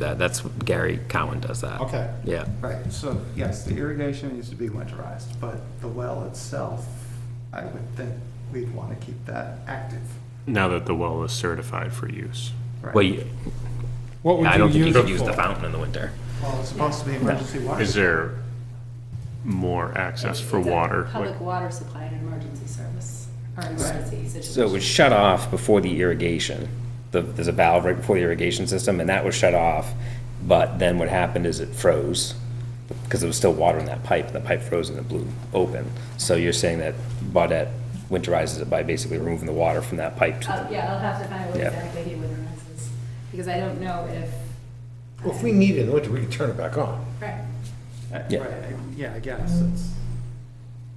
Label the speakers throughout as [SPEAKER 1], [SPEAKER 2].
[SPEAKER 1] That, that's, Gary Cowan does that.
[SPEAKER 2] Okay.
[SPEAKER 1] Yeah.
[SPEAKER 3] Right, so yes, the irrigation needs to be winterized, but the well itself, I would think we'd want to keep that active.
[SPEAKER 4] now that the well is certified for use.
[SPEAKER 3] right?
[SPEAKER 1] Well, you-
[SPEAKER 2] What
[SPEAKER 1] I don't
[SPEAKER 2] would
[SPEAKER 1] think
[SPEAKER 2] you
[SPEAKER 1] you
[SPEAKER 2] use
[SPEAKER 1] could
[SPEAKER 2] it
[SPEAKER 1] use the
[SPEAKER 2] for?
[SPEAKER 1] fountain in the winter.
[SPEAKER 3] Well, it's supposed to be emergency water.
[SPEAKER 4] Is there more access for
[SPEAKER 5] It's a
[SPEAKER 4] water?
[SPEAKER 5] Public water supply and emergency service, or emergency Oh, situation.
[SPEAKER 6] So it was shut off before the irrigation. The- There's a valve right before the irrigation system, and that was shut off. But then what happened is it froze, because there was still water in that pipe, and the pipe froze and it blew open. So you're saying that Baudette winterizes it by basically removing the water from that pipe? to the-
[SPEAKER 5] Uh, Yeah, I'll have to find out what
[SPEAKER 6] Yeah.
[SPEAKER 5] exactly he winterizes, because I don't know if.
[SPEAKER 7] Well, if we need it in the winter, we can turn it back on.
[SPEAKER 5] Right.
[SPEAKER 3] Uh,
[SPEAKER 6] Yeah.
[SPEAKER 3] Right, I- yeah, I guess it's,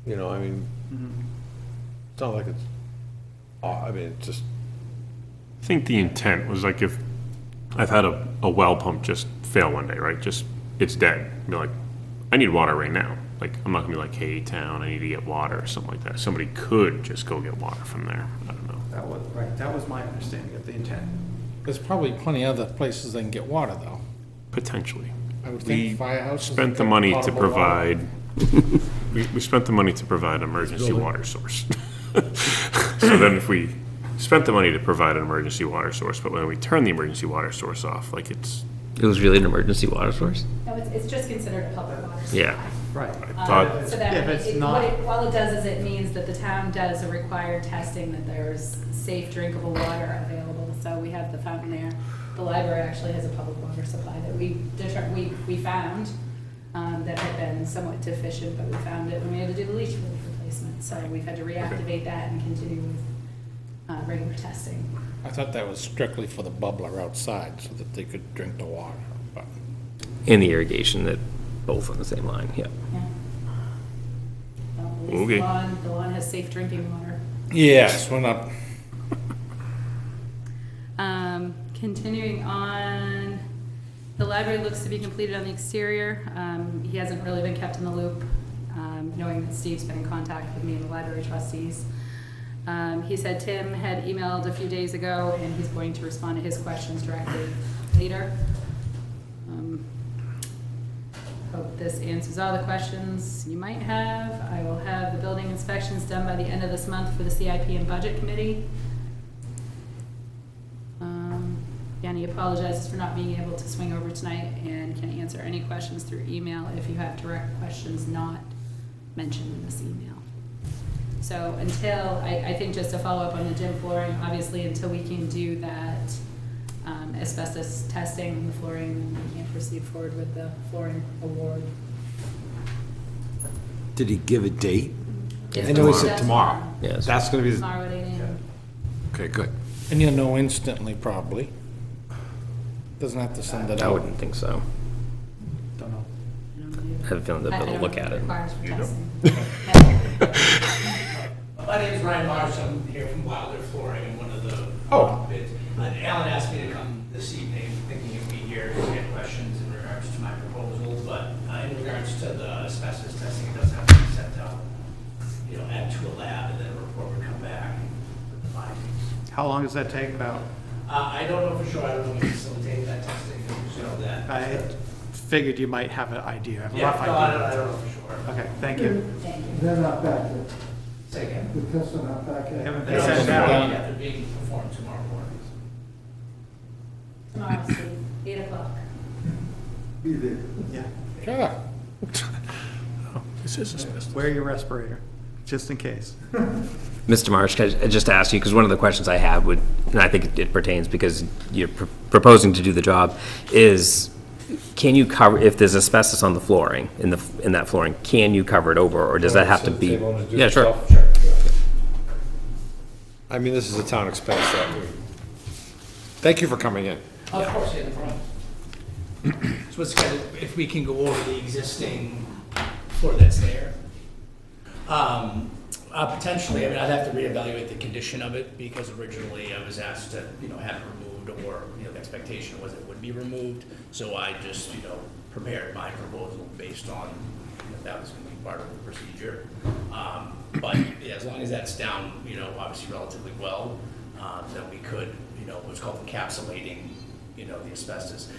[SPEAKER 7] You know, I mean,
[SPEAKER 8] Mm-hmm.
[SPEAKER 7] it's not like it's, aw- I mean, it's just,
[SPEAKER 4] I think the intent was like if, I've had a, a well pump just fail one day, right? Just, it's dead. Be like, I need water right now. Like, I'm not gonna be like, hey, town, I need to get water or something like that. Somebody could just go get water from there. I don't know.
[SPEAKER 3] that was, right, that was my understanding of the intent.
[SPEAKER 2] There's probably plenty of other places they can get water, though.
[SPEAKER 4] Potentially.
[SPEAKER 2] I would
[SPEAKER 4] We
[SPEAKER 2] think firehouses.
[SPEAKER 4] spent the money to provide, we, we spent the money to provide an emergency water source. So then if we spent the money to provide an emergency water source, but when we turn the emergency water source off, like it's,
[SPEAKER 1] It was really an emergency water source?
[SPEAKER 5] No, it's, it's just considered a public water supply.
[SPEAKER 1] Yeah.
[SPEAKER 3] Right.
[SPEAKER 4] I
[SPEAKER 5] Um,
[SPEAKER 4] thought,
[SPEAKER 5] So that,
[SPEAKER 3] If it's
[SPEAKER 5] it-
[SPEAKER 3] not-
[SPEAKER 5] what it, all it does is it means that the town does a required testing, that there's safe drinkable water available. So we have the fountain there. The library actually has a public water supply that we deter, we, we found, um, that had been somewhat deficient, but we found it when we had to do the leach field replacement. So we've had to reactivate that and continue with, uh, regular testing.
[SPEAKER 2] I thought that was strictly for the bubbler outside, so that they could drink the water, but.
[SPEAKER 1] In the irrigation, that both on the same line, yeah.
[SPEAKER 5] Yeah. Well, at least
[SPEAKER 4] Okay.
[SPEAKER 5] The lawn, the lawn has safe drinking water.
[SPEAKER 2] Yes, we're not,
[SPEAKER 5] Um, continuing on, the library looks to be completed on the exterior. Um, he hasn't really been kept in the loop, um, knowing that Steve's been in contact with me and the library trustees. Um, he said Tim had emailed a few days ago, and he's going to respond to his questions directly later. Um, Hope this answers all the questions you might have. I will have the building inspections done by the end of this month for the CIP and Budget Committee. Um, Yanni apologizes for not being able to swing over tonight and can answer any questions through email if you have direct questions not mentioned in this email. So until, I, I think just to follow up on the gym flooring, obviously until we can do that um, asbestos testing on the flooring, then we can't proceed forward with the flooring award.
[SPEAKER 8] Did he give a date?
[SPEAKER 5] It's
[SPEAKER 8] I know he
[SPEAKER 5] tomorrow.
[SPEAKER 8] said tomorrow.
[SPEAKER 1] Yes.
[SPEAKER 8] That's gonna be, the-
[SPEAKER 5] Tomorrow at eight AM.
[SPEAKER 8] okay, good.
[SPEAKER 2] and you'll know instantly, probably. Doesn't have to send it
[SPEAKER 1] I
[SPEAKER 2] out.
[SPEAKER 1] wouldn't think so.
[SPEAKER 3] Don't know.
[SPEAKER 5] I don't
[SPEAKER 1] I
[SPEAKER 5] know.
[SPEAKER 1] have a feeling
[SPEAKER 5] I- I
[SPEAKER 1] they'll be able
[SPEAKER 5] don't
[SPEAKER 1] to look
[SPEAKER 5] know
[SPEAKER 1] at
[SPEAKER 5] what
[SPEAKER 1] it.
[SPEAKER 5] requires for testing.
[SPEAKER 9] My name is Ryan Marsh, I'm here from Wilder Flooring, I'm one of the
[SPEAKER 7] Oh.
[SPEAKER 9] bids. Uh, Alan asked me to come this evening, thinking you'd be here to get questions in regards to my proposal, but uh, in regards to the asbestos testing, it does have to be sent out, you know, add to a lab, and then a report would come back with the findings.
[SPEAKER 3] How long does that take about?
[SPEAKER 9] Uh, I don't know for sure, I don't know if we facilitate that testing, you know, that.
[SPEAKER 3] I figured you might have an idea, a
[SPEAKER 9] Yeah,
[SPEAKER 3] rough
[SPEAKER 9] no, I don't, I
[SPEAKER 3] idea.
[SPEAKER 9] don't know for sure.
[SPEAKER 3] Okay, thank you.
[SPEAKER 5] Thank you.
[SPEAKER 10] They're not back yet.
[SPEAKER 9] Say again.
[SPEAKER 10] The tests are not back yet.
[SPEAKER 3] Haven't
[SPEAKER 9] They're
[SPEAKER 3] they sent it out?
[SPEAKER 9] not- yeah, they're being performed tomorrow morning.
[SPEAKER 5] Tomorrow, Steve, eight o'clock.
[SPEAKER 10] Be there.
[SPEAKER 3] Yeah.
[SPEAKER 2] Sure.
[SPEAKER 4] this is asbestos.
[SPEAKER 3] Wear your respirator, just in case.
[SPEAKER 1] Mr. Marsh, can I just ask you, because one of the questions I have would, and I think it pertains because you're pr- proposing to do the job, is can you cover, if there's asbestos on the flooring, in the, in that flooring, can you cover it over, or does that have to
[SPEAKER 7] Send the
[SPEAKER 1] be?
[SPEAKER 7] table and just do it
[SPEAKER 1] Yeah, sure.
[SPEAKER 7] yourself. I mean, this is a town expense that we, thank you for coming in.
[SPEAKER 9] Of course, yeah, no problem. So it's kind of, if we can go over the existing floor that's there. Um, uh, potentially, I mean, I'd have to reevaluate the condition of it because originally I was asked to, you know, have it removed or, you know, the expectation was it would be removed. So I just, you know, prepared my proposal based on, you know, that was gonna be part of the procedure. Um, but yeah, as long as that's down, you know, obviously relatively um, well, uh, then we could, you know, what's called encapsulating, you know, the asbestos.